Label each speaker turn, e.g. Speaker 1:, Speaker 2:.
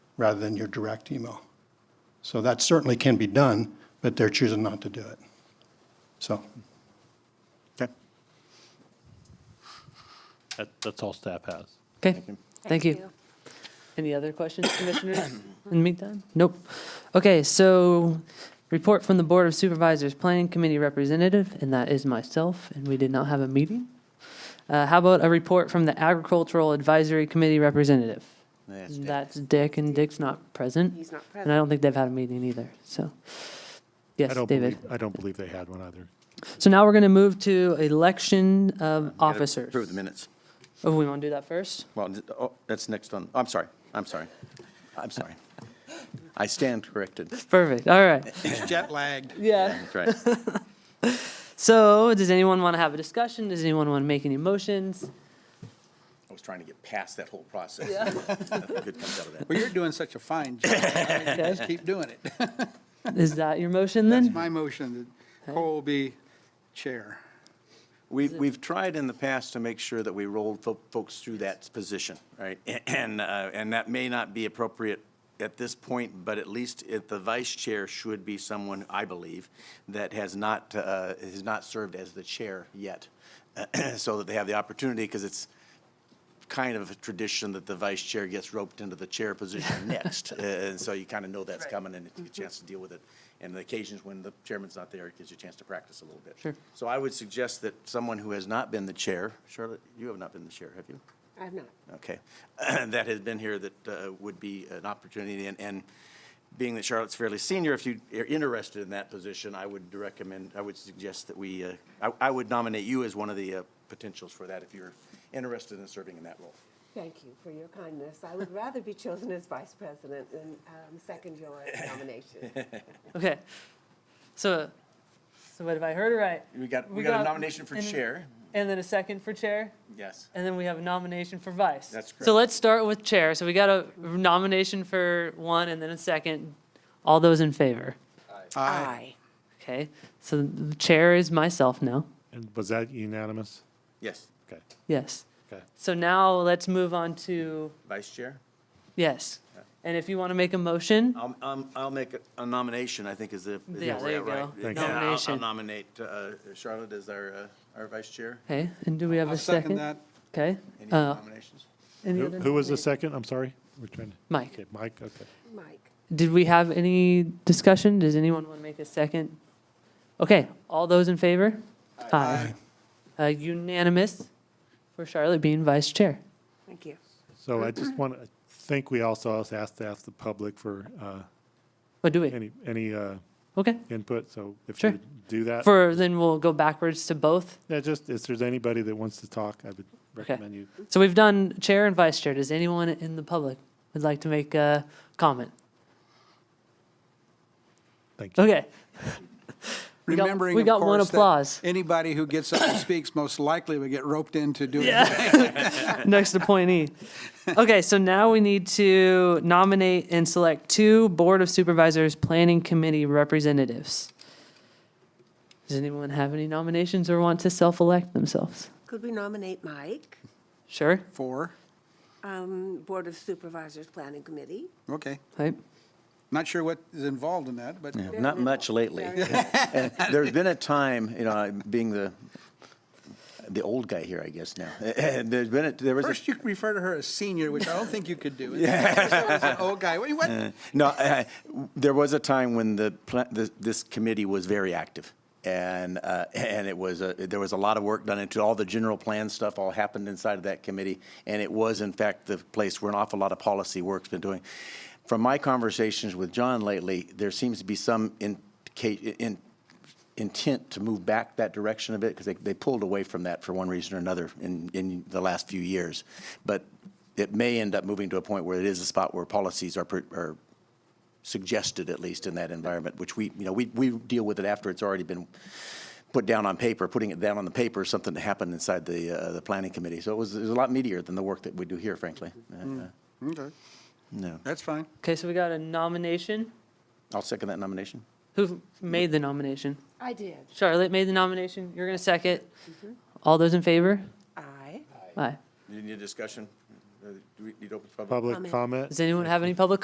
Speaker 1: rather than your direct email. So that certainly can be done, but they're choosing not to do it. So,
Speaker 2: Okay.
Speaker 3: That, that's all staff has.
Speaker 4: Okay, thank you. Any other questions, commissioners, in the meantime? Nope. Okay, so report from the Board of Supervisors Planning Committee Representative, and that is myself, and we did not have a meeting. Uh, How about a report from the Agricultural Advisory Committee Representative?
Speaker 2: That's Dick.
Speaker 4: That's Dick, and Dick's not present.
Speaker 5: He's not
Speaker 4: And I
Speaker 5: present.
Speaker 4: don't think they've had a meeting either, so.
Speaker 3: I
Speaker 4: Yes,
Speaker 3: don't
Speaker 4: David.
Speaker 3: believe, I don't believe they had one either.
Speaker 4: So now we're going to move to election of
Speaker 2: Gotta
Speaker 4: officers.
Speaker 2: Approve the minutes.
Speaker 4: Oh, we want to do that first?
Speaker 2: Well, th- oh, that's next on, I'm sorry, I'm sorry, I'm sorry. I stand corrected.
Speaker 4: Perfect, all right.
Speaker 2: It's jet lagged.
Speaker 4: Yeah.
Speaker 2: That's right.
Speaker 4: So, does anyone want to have a discussion? Does anyone want to make any motions?
Speaker 2: I was trying to get past that whole process.
Speaker 4: Yeah.
Speaker 2: Nothing good comes out of that.
Speaker 6: Well, you're doing such a fine job. I mean, Just keep doing it.
Speaker 4: Is that your motion
Speaker 6: That's
Speaker 4: then?
Speaker 6: my motion, that Cole be chair.
Speaker 2: We, we've tried in the past to make sure that we rolled fo- folks through that position, right? And, uh, and that may not be appropriate at this point, but at least if the vice chair should be someone, I believe, that has not, uh, has not served as the chair yet. So that they have the opportunity, because it's, kind of a tradition that the vice chair gets roped into the chair position next. Uh, And so you kind of know that's coming and it's a chance to deal with it. And the occasions when the chairman's not there, it gives you a chance to practice a little bit.
Speaker 4: Sure.
Speaker 2: So I would suggest that someone who has not been the chair, Charlotte, you have not been the chair, have you?
Speaker 5: I'm not.
Speaker 2: Okay. That has been here that uh, would be an opportunity. And, and being that Charlotte's fairly senior, if you are interested in that position, I would recommend, I would suggest that we, uh, I, I would nominate you as one of the uh, potentials for that if you're interested in serving in that role.
Speaker 5: Thank you for your kindness. I would rather be chosen as vice president than um, second your nomination.
Speaker 4: Okay. So, so what have I heard right?
Speaker 2: We got, we got a nomination for
Speaker 4: and-
Speaker 2: chair.
Speaker 4: And then a second for chair,
Speaker 2: Yes.
Speaker 4: and then we have a nomination for vice.
Speaker 2: That's
Speaker 4: So
Speaker 2: correct.
Speaker 4: let's start with chair. So we got a nomination for one and then a second. All those in favor?
Speaker 5: Aye.
Speaker 4: Okay, so the chair is myself now.
Speaker 3: And was that unanimous?
Speaker 2: Yes.
Speaker 3: Okay,
Speaker 4: Yes.
Speaker 3: okay.
Speaker 4: So now let's move on to,
Speaker 2: Vice chair?
Speaker 4: yes. And if you want to make a motion,
Speaker 2: I'll, I'll, I'll make a- a nomination, I think is the. is the
Speaker 4: Yeah, there you
Speaker 2: right-
Speaker 4: go. Thank
Speaker 2: Yeah,
Speaker 4: you.
Speaker 2: I'll- I'll
Speaker 4: Nomination.
Speaker 2: nominate uh, Charlotte as our, uh, our vice chair.
Speaker 4: okay, and do we have
Speaker 6: I'll
Speaker 4: a second?
Speaker 6: second that.
Speaker 4: Okay.
Speaker 2: Any
Speaker 4: Uh,
Speaker 2: nominations?
Speaker 4: any
Speaker 3: Who
Speaker 4: other
Speaker 3: who was the
Speaker 4: nomination?
Speaker 3: second? I'm sorry. We're trying to.
Speaker 4: Mike.
Speaker 3: Okay, Mike, okay.
Speaker 5: Mike.
Speaker 4: Did we have any discussion? Does anyone want to make a second? Okay, all those in favor? Aye. Uh, Unanimous for Charlotte being vice chair.
Speaker 5: Thank you.
Speaker 3: So I just want to, I think we also also asked to ask the public for uh,
Speaker 4: What do we?
Speaker 3: any, any uh,
Speaker 4: Okay,
Speaker 3: input, so if
Speaker 4: Sure.
Speaker 3: you do that.
Speaker 4: for, then we'll go backwards to both.
Speaker 3: Yeah, just, if there's anybody that wants to talk, I would recommend you.
Speaker 4: So we've done chair and vice chair. Does anyone in the public would like to make a comment?
Speaker 3: Thank you.
Speaker 4: Okay, We got-
Speaker 6: Remembering,
Speaker 4: we
Speaker 6: of
Speaker 4: got one
Speaker 6: course, that
Speaker 4: applause.
Speaker 6: Anybody who gets up and speaks most likely would get roped into doing it.
Speaker 4: next appointee. Okay, so now we need to nominate and select two Board of Supervisors Planning Committee representatives. Does anyone have any nominations or want to self-elect themselves?
Speaker 5: Could we nominate Mike,
Speaker 4: Sure,
Speaker 6: Four,
Speaker 5: um, Board of Supervisors Planning Committee?
Speaker 6: okay.
Speaker 4: right?
Speaker 6: Not sure what is involved in that, but
Speaker 2: Not much lately. And There's been a time, you know, I- being the, the old guy here, I guess now. And there's been, a- there was a
Speaker 6: first you refer to her as senior, which I don't think you could do. Yeah. Oh, guy, what, what?
Speaker 2: No, uh, there was a time when the, pla- the- this committee was very active. And, uh, and it was, a- there was a lot of work done into all the general plan stuff all happened inside of that committee. And it was in fact the place where an awful lot of policy work's been doing. From my conversations with John lately, there seems to be some indica- in, intent to move back that direction a bit because they, they pulled away from that for one reason or another in, in the last few years. But it may end up moving to a point where it is a spot where policies are, pr- are suggested at least in that environment, which we, you know, we, we deal with it after it's already been put down on paper, putting it down on the paper, is something that happened inside the, uh, the planning committee. So it was, it was a lot meatier than the work that we do here, frankly. Uh, uh,
Speaker 6: Okay,
Speaker 2: No.
Speaker 6: that's fine.
Speaker 4: Okay, so we got a nomination.
Speaker 2: I'll second that nomination.
Speaker 4: Who made the nomination?
Speaker 5: I did. Mm-hmm.
Speaker 4: Charlotte made the nomination. You're going to second. All those in favor?
Speaker 5: Aye.
Speaker 4: Aye.
Speaker 2: You need a discussion? Uh, Do we need open
Speaker 3: Public
Speaker 4: Comment.
Speaker 3: comment?
Speaker 4: Does anyone have any public